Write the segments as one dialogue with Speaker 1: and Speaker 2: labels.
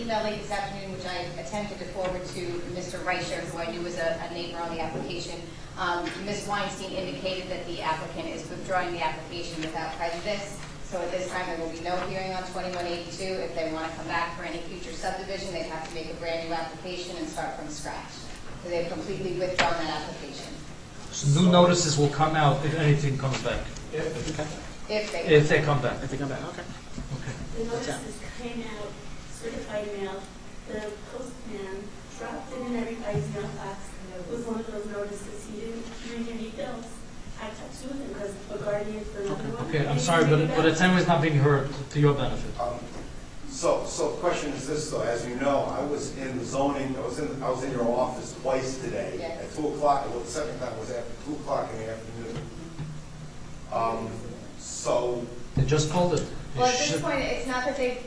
Speaker 1: email late this afternoon, which I attempted to forward to Mr. Reicher, who I knew was a a neighbor on the application. Um, Ms. Weinstein indicated that the applicant is withdrawing the application without prejudice. So at this time, there will be no hearing on 2182. If they want to come back for any future subdivision, they'd have to make a brand-new application and start from scratch. So they've completely withdrawn that application,
Speaker 2: So New notices will come out if anything comes back,
Speaker 1: if they...
Speaker 2: if they come back.
Speaker 3: I think I'm back, okay.
Speaker 4: The notices came out certified mail. The postman dropped it in everybody's mailbox. It was one of those notices. He didn't bring any bills. I talked to him because a guardian for another one.
Speaker 2: Okay, I'm
Speaker 4: And he
Speaker 2: sorry,
Speaker 4: didn't
Speaker 2: but,
Speaker 4: bring
Speaker 2: but
Speaker 4: it
Speaker 2: it's anyways not being heard to your benefit.
Speaker 5: Um, So, so the question is this, though, as you know, I was in the zoning, I was in, I was in your office twice today.
Speaker 1: Yes.
Speaker 5: At two o'clock, well, the second time was after two o'clock in the afternoon. Um, So,
Speaker 2: They just called it. They
Speaker 1: Well, at this
Speaker 2: should-
Speaker 1: point, it's not that they,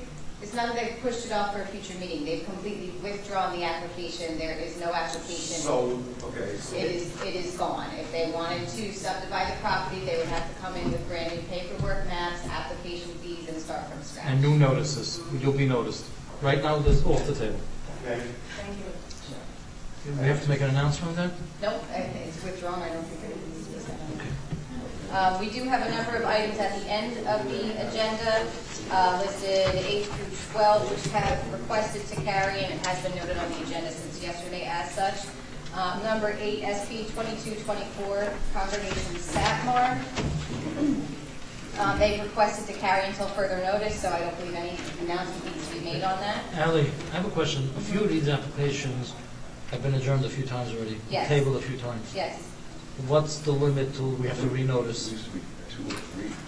Speaker 1: it's not that they've pushed it off for a future meeting. They've completely withdrawn the application. There is no application.
Speaker 5: so, okay, so.
Speaker 1: It is, it is gone. If they wanted to subdivide the property, they would have to come in with brand new paperwork, maps, application fees, and start from scratch.
Speaker 2: And new notices, you'll be noticed. Right now, this is off the table.
Speaker 5: okay.
Speaker 1: Thank you.
Speaker 2: We have to make an announcement then?
Speaker 1: Nope, I- it's withdrawn, I don't think it is. Uh, We do have a number of items at the end of the agenda, uh, listed eight through 12, which have requested to carry, and it has been noted on the agenda since yesterday as such. Uh, Number eight, SP 2224, Congregation Satmar. Um, They've requested to carry until further notice, so I don't believe any announcement needs to be made on that.
Speaker 2: Ally, I have a question. A few of these applications have been adjourned a few times already.
Speaker 1: Yes.
Speaker 2: Tabled a few times.
Speaker 1: Yes.
Speaker 2: What's the limit till we have to renotice?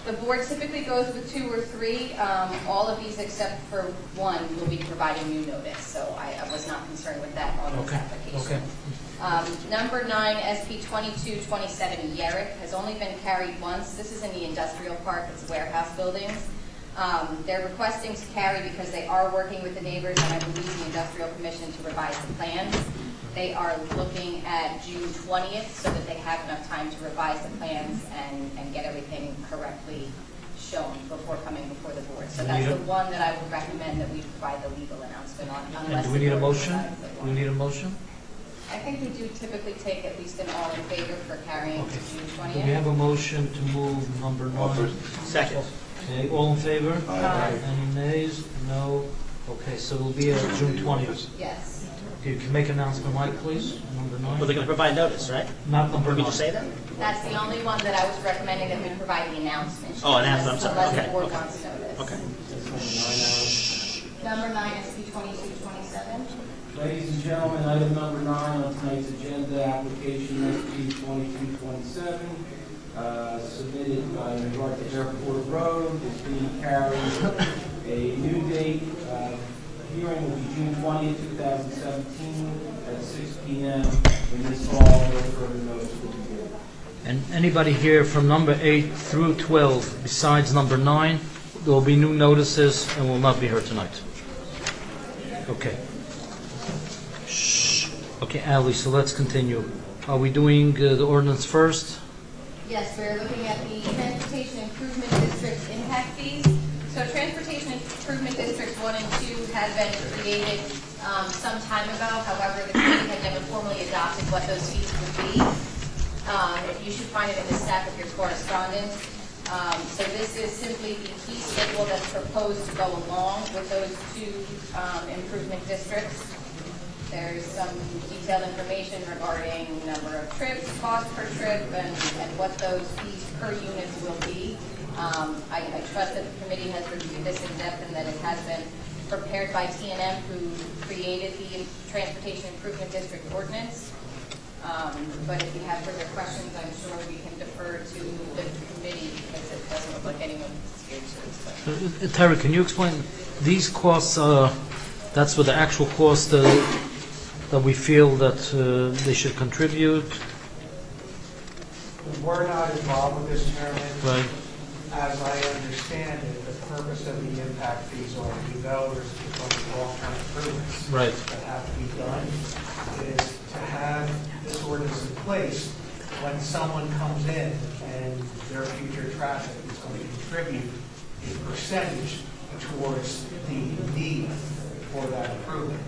Speaker 1: The board typically goes with two or three. Um, All of these except for one will be providing new notice, so I I was not concerned with that on this
Speaker 2: Okay, okay.
Speaker 1: application. Um, Number nine, SP 2227 Yerrick has only been carried once. This is in the industrial park, it's warehouse buildings. Um, They're requesting to carry because they are working with the neighbors, and I believe the industrial commission to revise the plans. They are looking at June 20th, so that they have enough time to revise the plans and, and get everything correctly shown before coming before the board. So
Speaker 2: We
Speaker 1: that's
Speaker 2: need
Speaker 1: the
Speaker 2: a-
Speaker 1: one that I would recommend that we provide the legal announcement on,
Speaker 2: And
Speaker 1: unless.
Speaker 2: do we
Speaker 1: the
Speaker 2: need a
Speaker 1: board
Speaker 2: motion?
Speaker 1: decides they
Speaker 2: Do
Speaker 1: want
Speaker 2: we
Speaker 1: it.
Speaker 2: need a motion?
Speaker 1: I think we do typically take at least an all in favor for carrying to
Speaker 2: Okay.
Speaker 1: June
Speaker 2: Do we
Speaker 1: twentieth.
Speaker 2: have a motion to move number nine?
Speaker 3: Second.
Speaker 2: Okay, all in favor?
Speaker 1: Aye.
Speaker 2: Any nays? No? Okay, so it'll be uh, June 20th.
Speaker 1: Yes.
Speaker 2: Okay, you can make announcement, Mike, please, number
Speaker 3: Well, they're
Speaker 2: nine.
Speaker 3: gonna provide notice, right?
Speaker 2: Not number
Speaker 3: Did we
Speaker 2: nine.
Speaker 3: just say that?
Speaker 1: That's the only one that I was recommending that we provide the announcement.
Speaker 3: Oh, announcement, I'm sorry.
Speaker 1: Unless the
Speaker 3: Okay,
Speaker 1: board
Speaker 3: okay.
Speaker 1: wants notice.
Speaker 3: Okay.
Speaker 1: Number nine, SP twenty-two twenty-seven.
Speaker 6: Ladies and gentlemen, item number nine on tonight's agenda, application SP 2227, uh, submitted by North Airport Road, is being carried. A new date, uh, hearing will be June 20th, 2017, at 6 PM in this hall, no further notice will be given.
Speaker 2: And anybody here from number eight through 12, besides number nine, there will be new notices and will not be heard tonight. Okay. Shh. Okay, Ally, so let's continue. Are we doing uh, the ordinance first?
Speaker 1: Yes, we're looking at the Transportation Improvement District impact fees. So Transportation Improvement Districts One and Two had been created um, some time ago. However, the committee had never formally adopted what those fees would be. Um, You should find it in the stack of your correspondence. Um, So this is simply the fee schedule that's proposed to go along with those two um, improvement districts. There's some detailed information regarding number of trips, cost per trip, and, and what those fees per unit will be. Um, I, I trust that the committee has reviewed this in depth and that it has been prepared by TNM, who created the Transportation Improvement District ordinance. Um, but if you have further questions, I'm sure we can defer to the committee, because it doesn't look like anyone's here to explain.
Speaker 2: Uh, uh, Terry, can you explain, these costs, uh, that's what the actual cost uh, that we feel that uh, they should contribute,
Speaker 7: We're not involved with this, Chairman.
Speaker 2: right?
Speaker 7: As I understand it, the purpose of the impact fees are to go, there's some long-term improvements
Speaker 2: Right.
Speaker 7: that have to be done. It is to have this ordinance in place when someone comes in and their future traffic is going to contribute a percentage towards the need
Speaker 6: for that improvement.